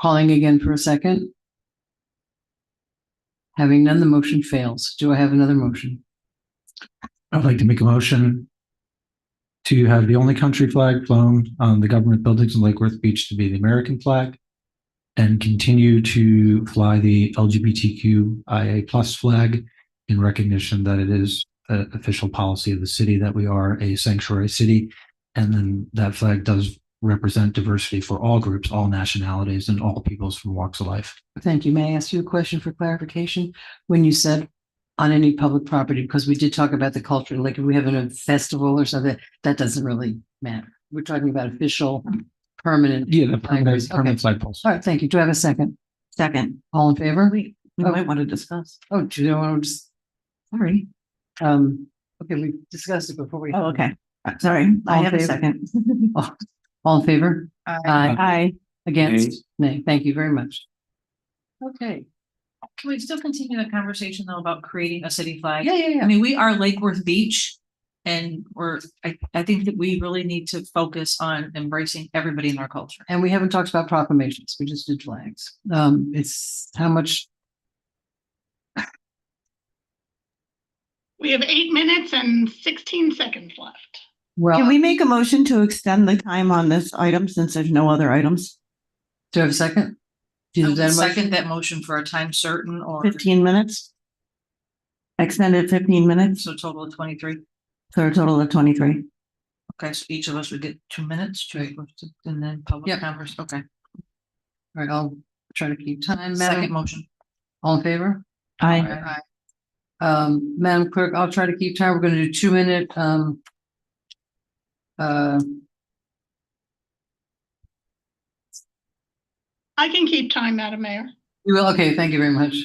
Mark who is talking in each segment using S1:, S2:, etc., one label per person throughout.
S1: Calling again for a second. Having none, the motion fails. Do I have another motion?
S2: I'd like to make a motion to have the only country flag flown on the government buildings in Lake Worth Beach to be the American flag and continue to fly the LGBTQIA plus flag in recognition that it is the official policy of the city that we are a sanctuary city. And then that flag does represent diversity for all groups, all nationalities, and all peoples from walks of life.
S1: Thank you. May I ask you a question for clarification? When you said on any public property, because we did talk about the culture, like if we have a festival or something, that doesn't really matter. We're talking about official, permanent.
S2: Yeah, the
S1: permanent-
S2: permanent,
S1: permanent
S2: permanent flag poles.
S1: All right, thank you. Do I have a second?
S3: Second,
S1: All in favor?
S3: we, we
S1: Oh.
S3: might want to discuss.
S1: Oh, do you want to just,
S3: Sorry.
S1: um, okay, we discussed it before we.
S3: Oh, okay. Uh, Sorry, I
S1: All in
S3: have a
S1: favor?
S3: second. Uh,
S1: All in favor? Aye.
S3: Aye.
S1: Against? Nay. Thank you very much. Okay.
S4: Can we still continue the conversation though about creating a city flag?
S1: Yeah, yeah,
S4: I
S1: yeah.
S4: mean, we are Lake Worth Beach. And we're, I, I think that we really need to focus on embracing everybody in our culture.
S1: And we haven't talked about proclamations. We just did flags. Um, it's how much,
S5: We have eight minutes and sixteen seconds left.
S1: well,
S3: Can
S1: do
S3: we make a motion to extend the time on this item since there's no other items?
S1: you have a second? Do you
S4: I
S1: have
S4: would
S1: that
S4: Second
S1: motion?
S4: that motion for a time certain or
S3: Fifteen minutes? Extended fifteen minutes
S4: so total of twenty-three.
S3: for a total of twenty-three.
S4: Okay, so each of us would get two minutes, two, and then public
S1: Yep.
S4: converse, okay.
S1: All right, I'll try to keep time,
S4: Second
S1: Madam.
S4: motion.
S1: All in favor?
S3: Aye.
S1: Um, Madam Clerk, I'll try to keep time. We're gonna do two minute, um, uh,
S5: I can keep time, Madam Mayor.
S1: you will, okay, thank you very much.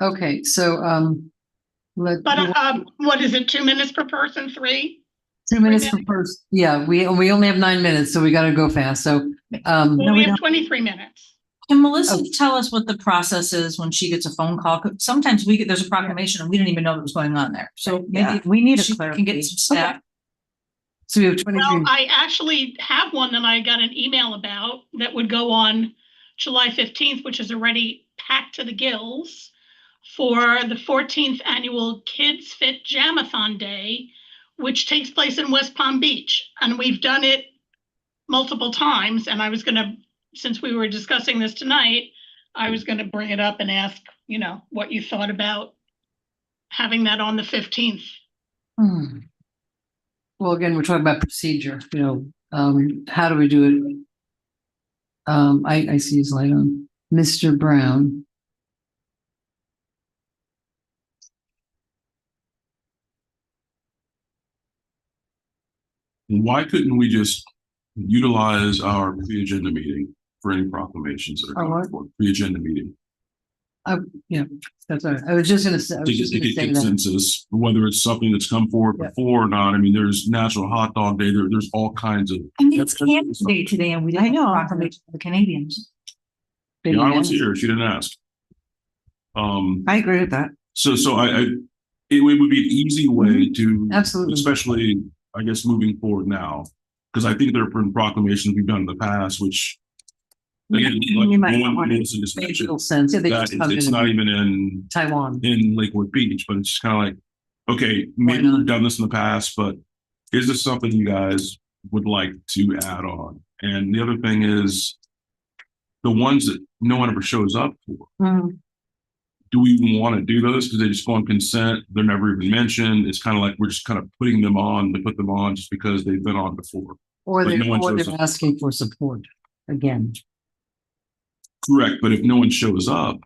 S1: Okay, so, um, let.
S5: But um, what is it, two minutes per person, three?
S1: Two minutes per person. Yeah, we, we only have nine minutes, so we gotta go fast. So, um,
S5: Well,
S3: we
S5: we have
S3: don't.
S5: twenty-three minutes.
S4: Can Melissa
S1: Oh.
S4: tell us what the process is when she gets a phone call? 'Cause Sometimes we get, there's a proclamation and we didn't even know what was going on there. So
S3: Yeah,
S4: maybe
S3: we need
S4: she
S3: a
S4: can get
S3: clarification.
S4: some staff.
S1: so we have twenty-three.
S5: Well, I actually have one that I got an email about that would go on July fifteenth, which is already packed to the gills for the fourteenth annual Kids Fit Jamathon Day, which takes place in West Palm Beach. And we've done it multiple times, and I was gonna, since we were discussing this tonight, I was gonna bring it up and ask, you know, what you thought about having that on the fifteenth.
S1: Hmm. Well, again, we're talking about procedure, you know, um, how do we do it? Um, I, I see his light on. Mr. Brown.
S6: Why couldn't we just utilize our pre-agenda meeting for any proclamations that
S1: Our
S6: are
S1: what?
S6: coming forward? Pre-agenda meeting.
S1: That's all right. I was just gonna say. I
S6: To
S1: was
S6: get
S1: just
S6: to
S1: gonna
S6: get
S1: say that.
S6: consensus, whether it's something that's come forward
S1: Yeah.
S6: before or not. I mean, there's National Hot Dog Day, there, there's all kinds of.
S4: I mean,
S6: That's
S4: it's
S6: good.
S4: Canadian Day today and we didn't.
S3: I know.
S4: have a proclamation for The Canadians.
S1: Big
S6: I was
S1: event.
S6: here, she didn't ask. Um,
S3: I agree with that.
S6: so, so I, I, it would would be an easy way to,
S1: Mm-hmm. Absolutely.
S6: especially, I guess, moving forward now. Because I think there have been proclamations we've done in the past, which. again, like
S3: You might not
S6: Lauren
S3: want to.
S6: Wilson just
S1: Makes
S6: mentioned.
S1: little sense. Yeah, they
S6: that
S1: just come
S6: it's not
S1: in
S6: even in,
S1: Taiwan.
S6: in Lakewood Beach, but it's just kind of like, okay, maybe
S1: not?
S6: we've done this in the past, but is this something you guys would like to add on? And the other thing is the ones that no one ever shows up for,
S3: Mm,
S6: do we even want to do those? Because they just go on consent. They're never even mentioned. It's kind of like, we're just kind of putting them on to put them on just because they've been on before.
S1: Or
S6: but
S1: they're,
S6: no one
S1: or
S6: shows
S1: they're
S6: up.
S1: asking for support again.
S6: Correct. But if no one shows up,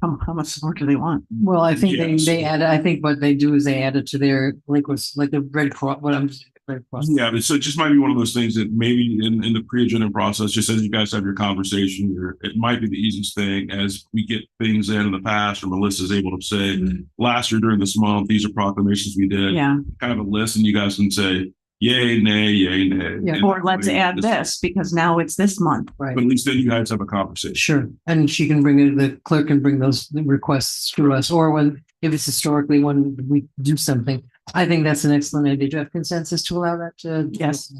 S3: How, how much support do they want?
S1: Well, I think they,
S6: Yes.
S1: they add, I think what they do is they add it to their, like, was, like the Red Cross, what I'm, Red Cross.
S6: Yeah, but so it just might be one of those things that maybe in, in the pre-agenda process, just as you guys have your conversation, you're, it might be the easiest thing as we get things in in the past, or Melissa's able to say, last year during this month, these are proclamations we did.
S3: Mm-hmm. Yeah,
S6: Kind of a list and you guys can say, yay, nay, yay, nay.
S1: Yeah,
S6: and
S3: or let's
S6: hopefully
S3: add this because now it's this month.
S1: Right.
S6: But at least then you guys have a conversation.
S1: Sure, and she can bring it, the clerk can bring those requests to us, or when, if it's historically when we do something. I think that's an excellent idea. Do you have consensus to allow that to?
S3: Yes.